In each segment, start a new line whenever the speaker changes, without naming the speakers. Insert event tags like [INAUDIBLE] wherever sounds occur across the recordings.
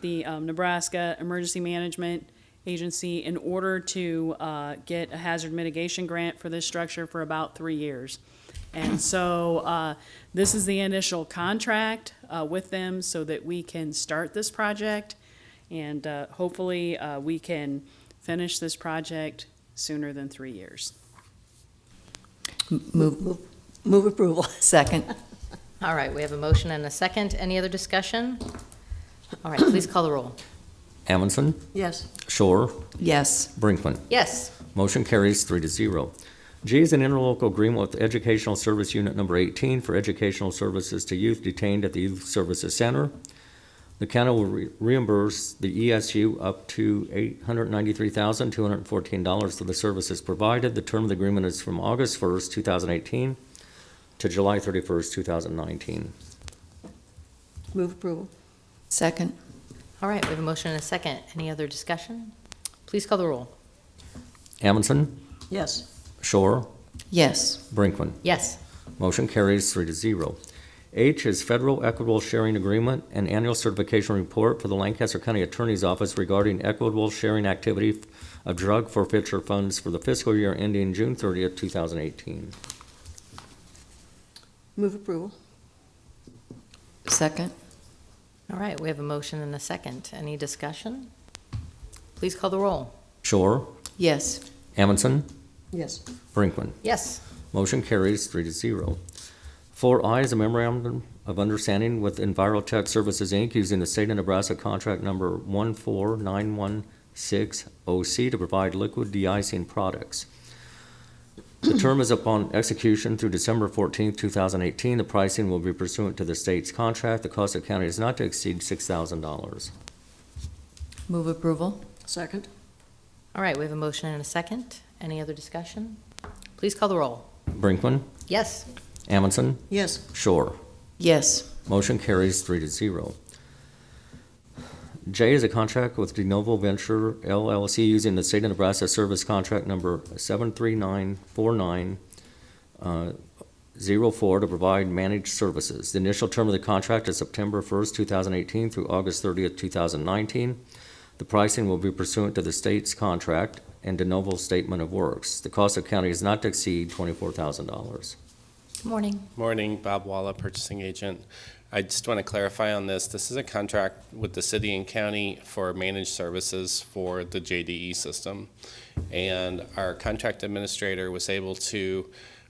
the um, Nebraska Emergency Management Agency in order to uh, get a hazard mitigation grant for this structure for about three years. And so uh, this is the initial contract uh, with them so that we can start this project. And uh, hopefully, uh, we can finish this project sooner than three years.
Move, move approval. [LAUGHS] Second.
All right, we have a motion and a second. Any other discussion? All right, please call the roll.
Amundson,
Yes.
Shore,
Yes.
Brinkman.
Yes.
Motion carries three to zero. G is an interlocal agreement with Educational Service Unit Number 18 for educational services to youth detained at the Youth Services Center. The county will re- reimburse the ESU up to $893,214 for the services provided. The term of the agreement is from August 1st, 2018 to July 31st, 2019.
Move approval. Second.
All right, we have a motion and a second. Any other discussion? Please call the roll.
Amundson,
Yes.
Shore,
Yes.
Brinkman.
Yes.
Motion carries three to zero. H is Federal Equitable Sharing Agreement and Annual Certification Report for the Lancaster County Attorney's Office regarding equitable sharing activity of drug forfeiture funds for the fiscal year ending June 30th, 2018.
Move approval. Second.
All right, we have a motion and a second. Any discussion? Please call the roll.
Shore,
Yes.
Amundson,
Yes.
Brinkman.
Yes.
Motion carries three to zero. Four I is a memorandum of understanding with EnviroTech Services, Inc., using the state of Nebraska contract number 14916OC oh to provide liquid de-icing products. The term is upon execution through December 14, 2018. The pricing will be pursuant to the state's contract. The cost of county is not to exceed $6,000.
Move approval.
Second?
All right, we have a motion and a second. Any other discussion? Please call the roll.
Brinkman,
Yes.
Amundson,
Yes.
Shore.
Yes.
Motion carries three to zero. J is a contract with De Novo Venture LLC using the state of Nebraska service contract number seven three nine four nine uh, zero four to provide managed services. The initial term of the contract is September first, two thousand eighteen through August thirtieth, two thousand nineteen. The pricing will be pursuant to the state's contract and De Novo's statement of works. The cost of county is not to exceed twenty-four thousand dollars.
Good morning.
Morning, Bob Walla, purchasing agent. I just want to clarify on this. This is a contract with the city and county for managed services for the JDE system. And our contract administrator was able to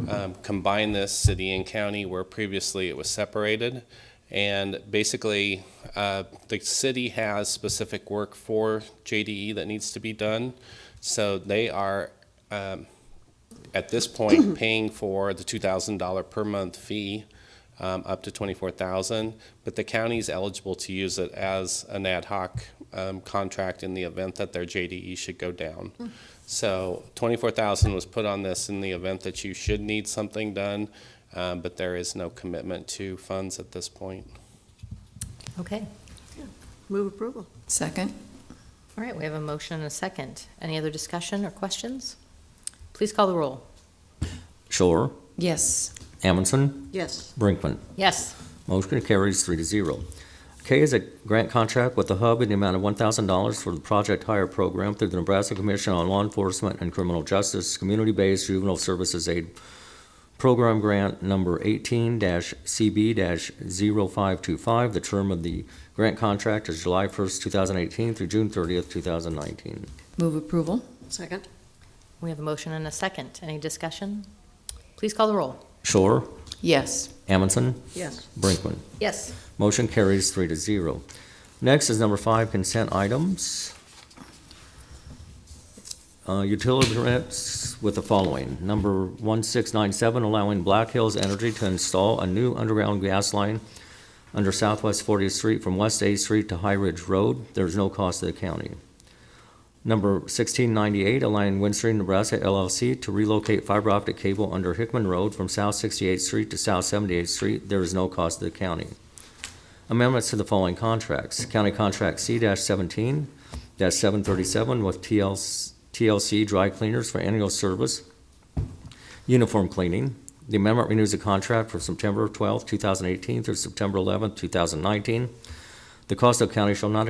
um, combine this city and county where previously it was separated. And basically, uh, the city has specific work for JDE that needs to be done. So they are um, at this point paying for the two thousand dollar per month fee um, up to twenty-four thousand, but the county's eligible to use it as an ad hoc um, contract in the event that their JDE should go down. So twenty-four thousand was put on this in the event that you should need something done, um, but there is no commitment to funds at this point.
Okay.
Move approval.
Second.
All right, we have a motion and a second. Any other discussion or questions? Please call the roll.
Shore,
Yes.
Amundson,
Yes.
Brinkman.
Yes.
Motion carries three to zero. K is a grant contract with the Hub in the amount of one thousand dollars for the Project Hire Program through the Nebraska Commission on Law Enforcement and Criminal Justice Community-Based Juvenile Services Aid Program Grant Number eighteen CB 525 The term of the grant contract is July first, two thousand eighteen through June thirtieth, two thousand nineteen.
Move approval.
Second?
We have a motion and a second. Any discussion? Please call the roll.
Shore,
Yes.
Amundson,
Yes.
Brinkman.
Yes.
Motion carries three to zero. Next is number five, consent items. Uh, Utility permits with the following. Number 1697, allowing Black Hills Energy to install a new underground gas line under Southwest 40th Street from West 8th Street to High Ridge Road. There's no cost to the county. Number 1698, allowing Windstream Nebraska LLC to relocate fiber optic cable under Hickman Road from South 68th Street to South 78th Street. There is no cost to the county. Amendments to the following contracts. County Contract C-17-737 with TLC TLC Dry Cleaners for annual service, uniform cleaning. The amendment renews the contract for September 12, 2018 through September 11, 2019. The cost of county shall not